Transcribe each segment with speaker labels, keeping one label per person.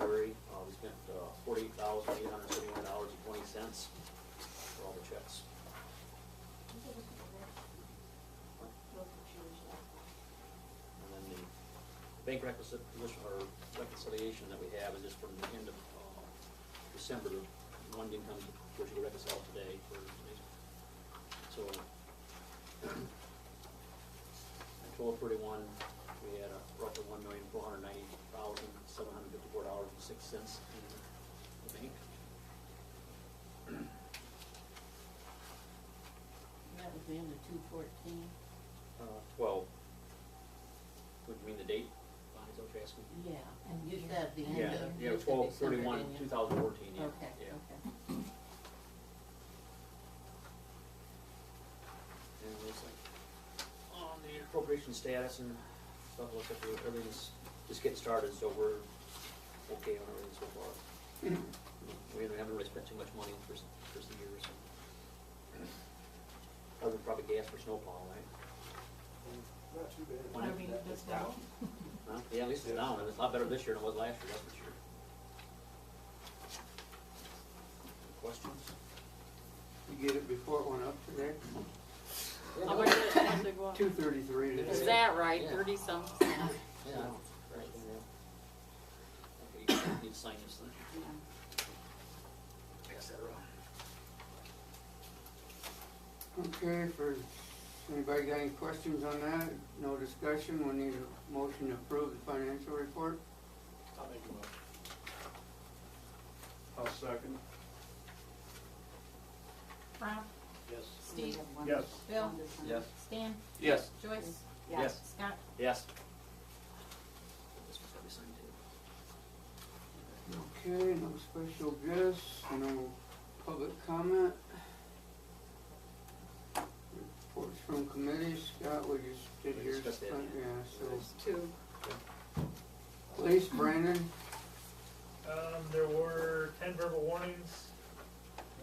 Speaker 1: uh, bank reconciliation, or reconciliation that we have is just from the end of, uh, December, one didn't come, which we reconciled today for, so. At twelve thirty-one, we had a roughly one million, four hundred ninety thousand, seven hundred fifty-four dollars and six cents in the bank.
Speaker 2: That was the end of two fourteen?
Speaker 1: Uh, twelve. Would you mean the date, Bonnie, is that what you're asking?
Speaker 2: Yeah, and you said the end
Speaker 1: Yeah,
Speaker 2: of.
Speaker 1: yeah,
Speaker 2: you said
Speaker 1: twelve
Speaker 2: December,
Speaker 1: thirty-one,
Speaker 2: didn't you?
Speaker 1: two thousand fourteen, yeah,
Speaker 2: Okay,
Speaker 1: yeah.
Speaker 2: okay.
Speaker 1: And it looks like, on the appropriation status and stuff, looks like we're- everything's just getting started, so we're okay on everything so far. We haven't really spent too much money for, s- for some years. Other than probably gas for snowplow, right?
Speaker 3: Not too bad.
Speaker 1: Well, I
Speaker 4: mean, that's
Speaker 3: down.
Speaker 1: Huh? Yeah, at least it's down, and it's a lot better this year than it was last year, that's for sure. Questions?
Speaker 3: You get it before it went up today?
Speaker 5: How much did it cost to go up?
Speaker 3: Two thirty-three today.
Speaker 5: Is that right,
Speaker 1: Yeah.
Speaker 5: thirty some?
Speaker 1: Yeah. Right. Okay, you need to sign this thing. Pass that around.
Speaker 3: Okay, for, anybody got any questions on that? No discussion, we need a motion to approve the financial report.
Speaker 4: I'll make a motion. I'll second.
Speaker 2: Rob,
Speaker 4: Yes.
Speaker 2: Steve,
Speaker 4: Yes.
Speaker 2: Bill,
Speaker 1: Yes.
Speaker 2: Stan,
Speaker 4: Yes.
Speaker 2: Joyce,
Speaker 1: Yes.
Speaker 2: Scott.
Speaker 1: Yes. This one's gotta be signed too.
Speaker 3: Okay, no special guests, no public comment. Reports from committees, Scott, we just did
Speaker 1: We
Speaker 3: yours.
Speaker 1: discussed that,
Speaker 3: but-
Speaker 1: yeah.
Speaker 3: Yeah, so,
Speaker 5: Two.
Speaker 3: police, Brandon,
Speaker 6: Um, there were ten verbal warnings,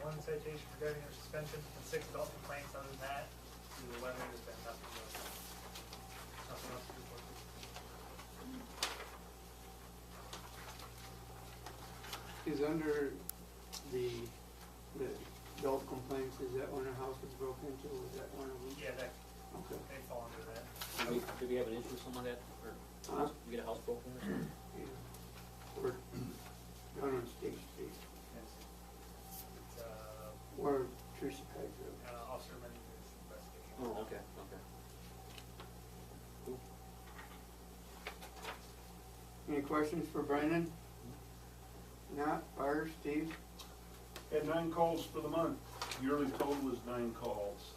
Speaker 6: one citation regarding their suspension, and six adult complaints other than that. The weather has been nothing but, nothing else to report.
Speaker 3: is under the, the adult complaints, is that when a house was broken into, was that one of them?
Speaker 6: Yeah, that,
Speaker 3: Okay.
Speaker 6: they fall under that.
Speaker 1: Did we, did we have an issue with someone that, or
Speaker 3: Huh?
Speaker 1: we get a house broken or something?
Speaker 3: Yeah. Or, down on State Street,
Speaker 6: Yes. It's, uh,
Speaker 3: or Tracy Kaiser.
Speaker 6: uh, Officer Mendez is investigating.
Speaker 1: Oh, okay, okay.
Speaker 3: Any questions for Brandon? Not, Fire, Steve?
Speaker 4: Had nine calls for the month. Yearly total was nine calls.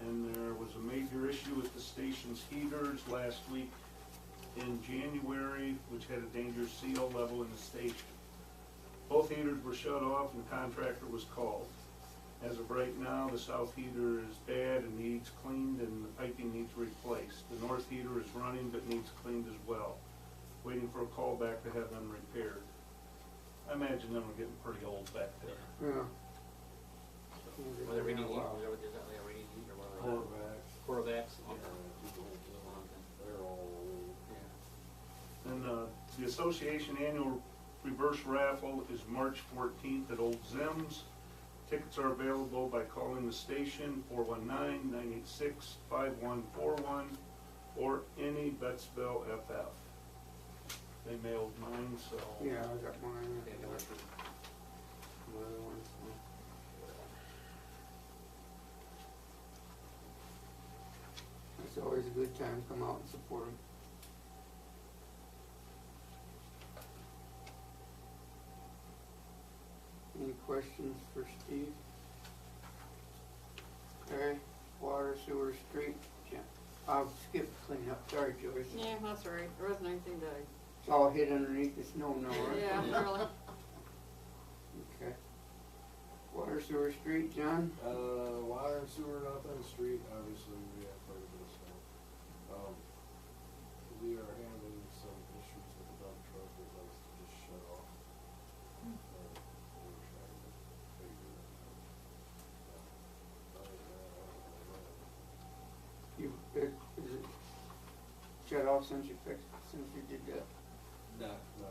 Speaker 4: And there was a major issue with the station's heaters last week in January, which had a danger CO level in the station. Both heaters were shut off and contractor was called. As of right now, the south heater is bad and needs cleaned and the piping needs replaced. The north heater is running but needs cleaned as well, waiting for a call back to have them repaired. I imagine them are getting pretty old back there.
Speaker 3: Yeah.
Speaker 1: Whether we need heat, whether we did E. that, yeah, we need heat E or whatever. Quarterbacks.
Speaker 7: They're all.
Speaker 4: And uh, the association annual reverse raffle is March 14th at Old Zims. Tickets are available by calling the station 419-986-5141 or any Betsville FF. They mailed mine, so.
Speaker 3: Yeah, I got mine.
Speaker 1: Yeah,
Speaker 3: Another
Speaker 1: yeah.
Speaker 3: one. It's always a good time to come out and support them. Any questions for Steve? Okay, water, sewer, street, yeah, I'll skip cleanup, sorry Joyce.
Speaker 5: Yeah, that's right, there wasn't anything to,
Speaker 3: It's all hid underneath the snow now, right?
Speaker 5: yeah, really.
Speaker 3: Okay. Water, sewer, street, John?
Speaker 7: Uh, water and sewer up on the street, obviously, we have quite a bit of snow. Um, we are having some issues with the dump truck, that likes to just shut off. Uh, We're trying to figure it out. Uh, other than that, I don't know what else.
Speaker 3: You, it, is it shut off since you fixed, since you did that?
Speaker 7: No,